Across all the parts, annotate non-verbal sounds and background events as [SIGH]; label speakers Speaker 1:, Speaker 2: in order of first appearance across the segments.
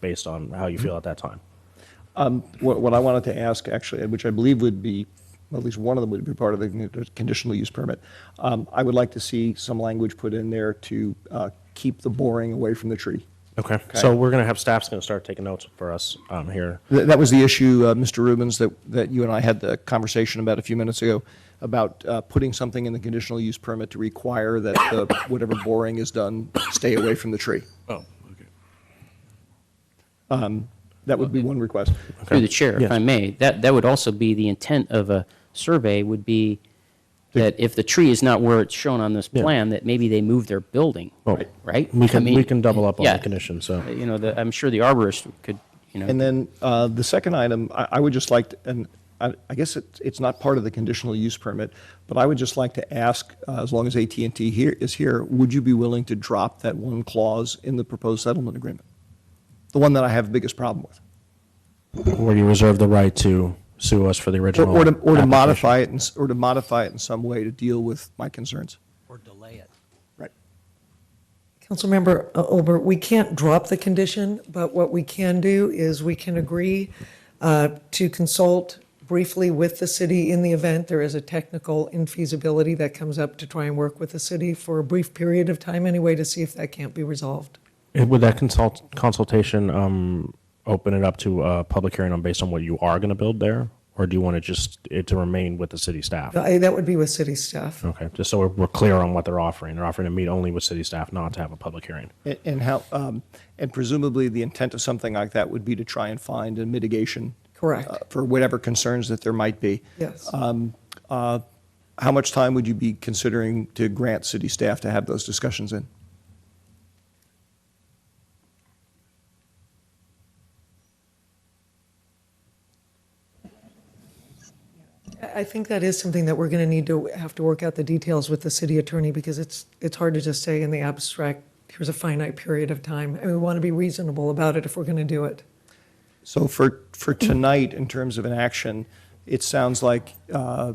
Speaker 1: based on how you feel at that time.
Speaker 2: What, what I wanted to ask, actually, which I believe would be, at least one of them would be part of the con- conditional use permit. Um, I would like to see some language put in there to, uh, keep the boring away from the tree.
Speaker 1: Okay. So we're gonna have staff's gonna start taking notes for us um, here.
Speaker 2: Th- That was the issue, uh, Mr. Rubens, that, that you and I had the conversation about a few minutes ago, about uh, putting something in the conditional use permit to require that the- whatever boring is done, stay away from the tree.
Speaker 3: Oh, okay.
Speaker 2: That would be one request.
Speaker 1: Okay.
Speaker 4: Through the chair, if
Speaker 1: Yes.
Speaker 4: I may, that, that would also be the intent of a survey would be that if the tree is not where it's shown on this
Speaker 1: Yeah.
Speaker 4: plan, that maybe they move their building,
Speaker 1: Well,
Speaker 4: right?
Speaker 1: Oh. We
Speaker 4: I
Speaker 1: can,
Speaker 4: mean,
Speaker 1: we can double up on
Speaker 4: yeah.
Speaker 1: the condition, so.
Speaker 4: You know, the, I'm sure the arborist could, you know.
Speaker 2: And then uh, the second item, I I would just like, to- and I I guess it- it's not part of the conditional use permit, but I would just like to ask, uh, as long as at and T here is here, would you be willing to drop that one clause in the proposed settlement agreement? The one that I have the biggest problem with?
Speaker 1: Where you reserve the right to sue us for the
Speaker 2: Or-
Speaker 1: original.
Speaker 2: Or to or to
Speaker 1: application.
Speaker 2: modify it, in s- or to modify it in some way to deal with my concerns?
Speaker 5: or delay it.
Speaker 2: Right.
Speaker 6: Councilmember uh, Olber, we can't drop the condition, but what we can do is we can agree uh, to consult briefly with the city in the event there is a technical infeasibility that comes up to try and work with the city for a brief period of time anyway to see if that can't be resolved.
Speaker 1: And Would that consult, consultation, um, open it up to a public hearing on based on what you are gonna build there? Or do you want to just, it to remain with the city staff?
Speaker 6: I- That would be with city staff.
Speaker 1: Okay, just so we're, we're clear on what they're offering. They're offering to meet only with city staff, not to have a public hearing.
Speaker 2: And- And how, um, and presumably the intent of something like that would be to try and find a mitigation.
Speaker 6: Correct.
Speaker 2: uh, For whatever concerns that there might be.
Speaker 6: Yes.
Speaker 2: How much time would you be considering to grant city staff to have those discussions in?
Speaker 6: I I think that is something that we're going to need to have to work out the details with the city attorney because it's, it's hard to just say in the abstract, here's a finite period of time. And we want to be reasonable about it if we're going to do it.
Speaker 2: So for, for tonight, in terms of an action, it sounds like uh,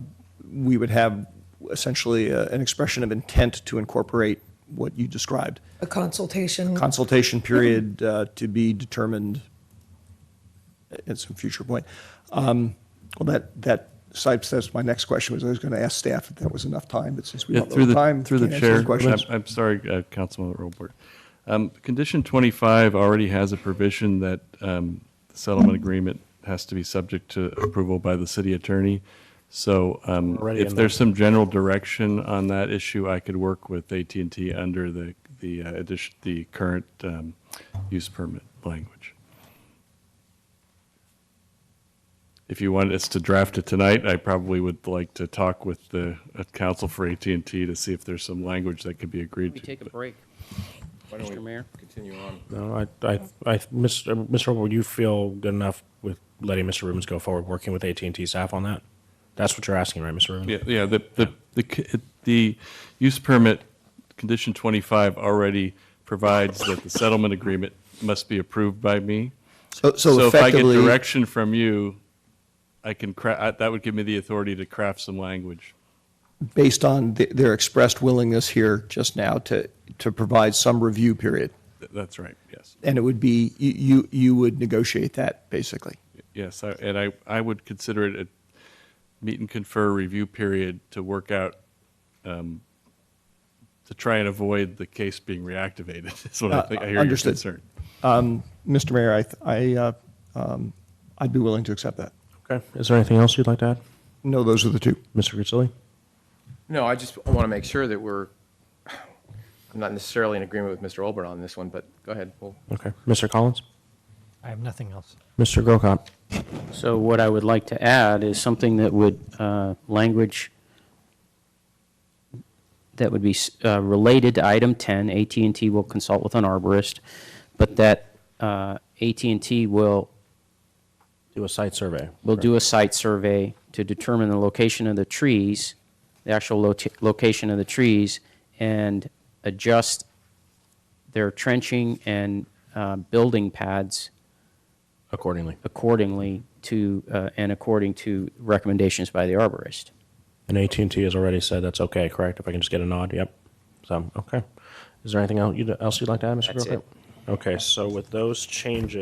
Speaker 2: we would have essentially a- an expression of intent to incorporate what you described.
Speaker 6: A consultation,
Speaker 2: Consultation period uh, to be determined at some future point. Um, Well, that, that, cites- that's my next question, was I was going to ask staff if that was enough time, but since we
Speaker 3: Yeah,
Speaker 2: don't
Speaker 3: Through
Speaker 2: know the
Speaker 3: the,
Speaker 2: time,
Speaker 3: through the
Speaker 2: can't answer
Speaker 3: chair,
Speaker 2: the questions.
Speaker 3: I'm- I'm sorry, uh, Councilman Robert. Um, Condition 25 already has a provision that um, the settlement agreement has to be subject to approval by the city attorney. So um,
Speaker 1: Already in
Speaker 3: if
Speaker 1: the-
Speaker 3: there's some general direction on that issue, I could work with at and T under the, the uh, addition, the current um, use permit language. If you want us to draft it tonight, I probably would like to talk with the uh, counsel for at and T to see if there's some language that could be agreed
Speaker 4: Let me
Speaker 3: to.
Speaker 4: take a break, Mr. Mayor.
Speaker 1: No, I, I, I, Mr. Mr. Would you feel good enough with letting Mr. Rubens go forward, working with AT and T staff on that? That's what you're asking, right, Mr. Rubens?
Speaker 3: Yeah, yeah, the, the, the, c- it- the use permit, condition 25 already provides that the settlement agreement must be approved by me.
Speaker 2: So- So
Speaker 3: if I get
Speaker 2: effectively.
Speaker 3: direction from you, I can cra, I- that would give me the authority to craft some language.
Speaker 2: based on th- their expressed willingness here just now to, to provide some review period.
Speaker 3: Th- That's right, yes.
Speaker 2: And it would be, you, you you would negotiate that, basically.
Speaker 3: Yes, I- and I, I would consider it a meet and confer review period to work out, um, to try and avoid the case being reactivated, [LAUGHS] is what I
Speaker 2: Uh,
Speaker 3: think, I hear your
Speaker 2: understood.
Speaker 3: concern.
Speaker 2: Mr. Mayor, I, th- I, uh, um, I'd be willing to accept that.
Speaker 1: Okay. Is there anything else you'd like to add,
Speaker 2: No, those are the two.
Speaker 1: Mr. Grizzly?
Speaker 7: No, I just want to make sure that we're, I'm not necessarily in agreement with Mr. Olbert on this one, but go ahead. We'll
Speaker 1: Okay. Mr. Collins?
Speaker 5: I have nothing else.
Speaker 1: Mr. Grocott?
Speaker 4: So what I would like to add is something that would, uh, language that would be uh, related to item 10, at and T will consult with an arborist, but that uh, at and T will,
Speaker 1: Do a site survey.
Speaker 4: will do a site survey to determine the location of the trees, the actual lota- location of the trees, and adjust their trenching and uh, building pads
Speaker 1: Accordingly.
Speaker 4: accordingly to, uh, and according to recommendations by the arborist.
Speaker 1: And AT and T has already said that's okay, correct? If I can just get a nod, yep. So, okay. Is there anything else you'd, else you'd like to add, Mr.
Speaker 4: That's
Speaker 1: Grocott?
Speaker 4: it.
Speaker 1: Okay, so with those changes.